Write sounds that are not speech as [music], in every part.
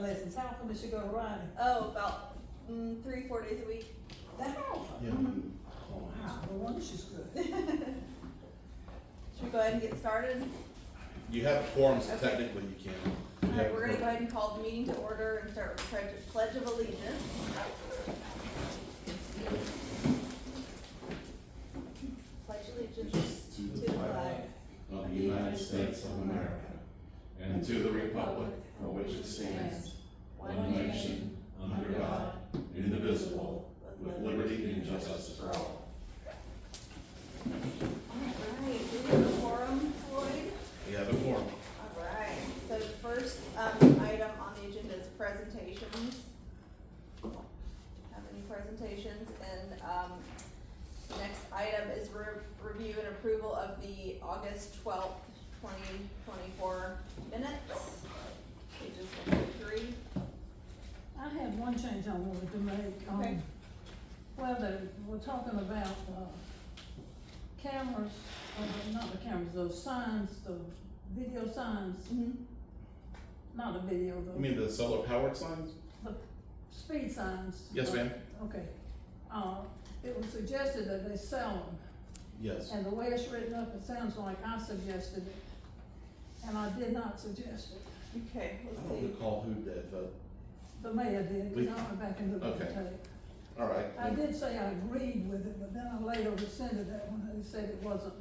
lessons, how often does she go to Ronnie? Oh, about mm, three, four days a week. That often? Yeah. Wow, no wonder she's good. Should we go ahead and get started? You have forms Okay. technically you can. All You right, have we're gonna go quorum. ahead and call the meeting to order and start with the pledge of allegiance. Pledge allegiance to the flag of the United States of America and to the republic for which it stands, one nation, under God, indivisible, with liberty and justice for all. Alright, we have a quorum, Floyd. You have a form. Alright, so the first, um, item on the agenda is presentations. Have any presentations, and, um, the next item is re- review and approval of the August twelfth, twenty twenty-four minutes. Pages one through three. I had one change I wanted to make. um, Okay. Well, the, we're talking about, uh, cameras, uh, not the cameras, those signs, the video signs, Mm-hmm. not a video, You the, mean the solar powered signs? the speed signs. Yes, uh, ma'am. Okay. Uh, it was suggested that they sell them. Yes. And the way it's written up, it sounds like I suggested it. And I did not suggest it. Okay, I let's don't see. recall who did, but, The mayor did, We- because I went back and looked at the Okay. tape. all right. I did say I agreed with it, but then I later rescinded that one, they said it wasn't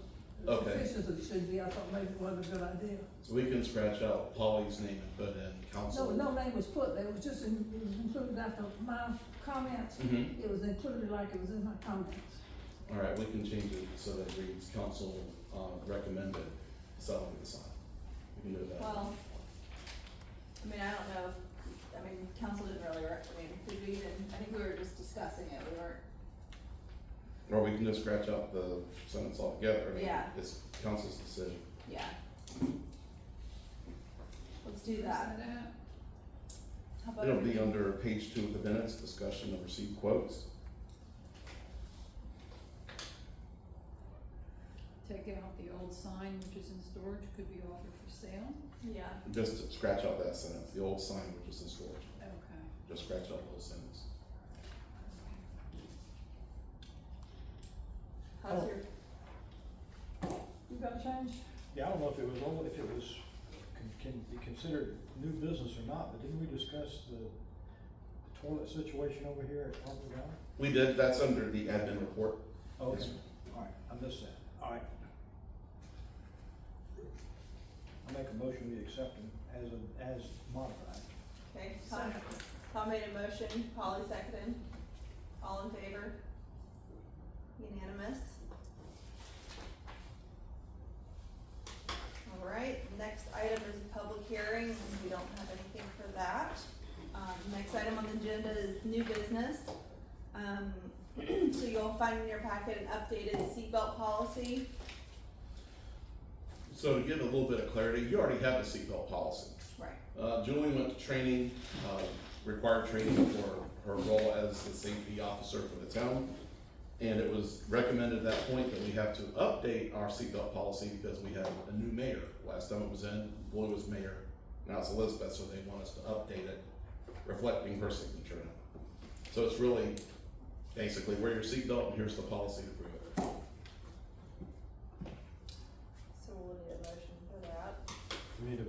as Okay. efficient as it should be, I thought maybe it wasn't a good idea. We can scratch out Polly's name and put in No, council. no name was put there, it was just in, it was included after my comments, Mhm. it was included like it was in my comments. All right, we can change it so that it reads council, uh, recommended selling the sign. We can do that. Well, I mean, I don't know, if- I mean, council didn't really, rec- I mean, did we even, I think we were just discussing it, we weren't Or we can just scratch out the sentence altogether. I mean, Yeah. It's council's decision. Yeah. Let's do that. How about It'll be we- under page two of the minutes, discussion of received quotes. Take out the old sign, which is in storage, could be offered for sale. Yeah, Just to scratch out that sentence, the old sign which is in storage, Okay. just scratch out the whole sentence. how's Oh. your, You got a change? Yeah, I don't know if it was, all- if it was, can, can be considered new business or not, but didn't we discuss the toilet situation over here at Parkville Valley? We did, that's under the admin report. Oh, Yes, okay, sir. alright, I missed that, alright. I make a motion we accept them as, a- as modified. okay, Tom, Tom made a motion, Polly seconded, all in favor? Unanimous? All right, next item is a public hearing, and we don't have anything for that. Um, next item on the agenda is new business. Um, [clears throat] so you'll find in your packet an updated seatbelt policy. So to give a little bit of clarity, you already have a seatbelt policy. Right. Uh, Julie went to training, uh, required training for her role as the safety officer for the town. And it was recommended at that point that we have to update our seatbelt policy because we have a new mayor. Last time it was in, Boyd was mayor, now it's Elizabeth, so they want us to update it, reflecting her signature. now. So it's really, basically, wear your seatbelt and here's the policy to prove it. So we'll need a motion for that. We need a.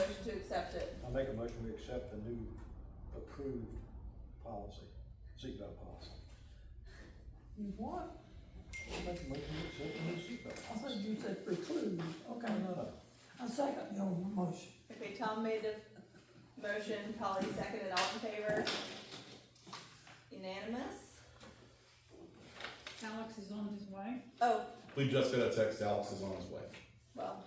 Motion to accept it. I make a motion we accept the new approved policy, seatbelt policy. You what? I make a motion we accept the new seatbelt I policy. said you said preclude, okay, No, no, no. I second your motion. Okay, Tom made the motion, Polly seconded, all in favor? Unanimous? Alex is on his way. Oh, We just got a text, Alex is on his way. well,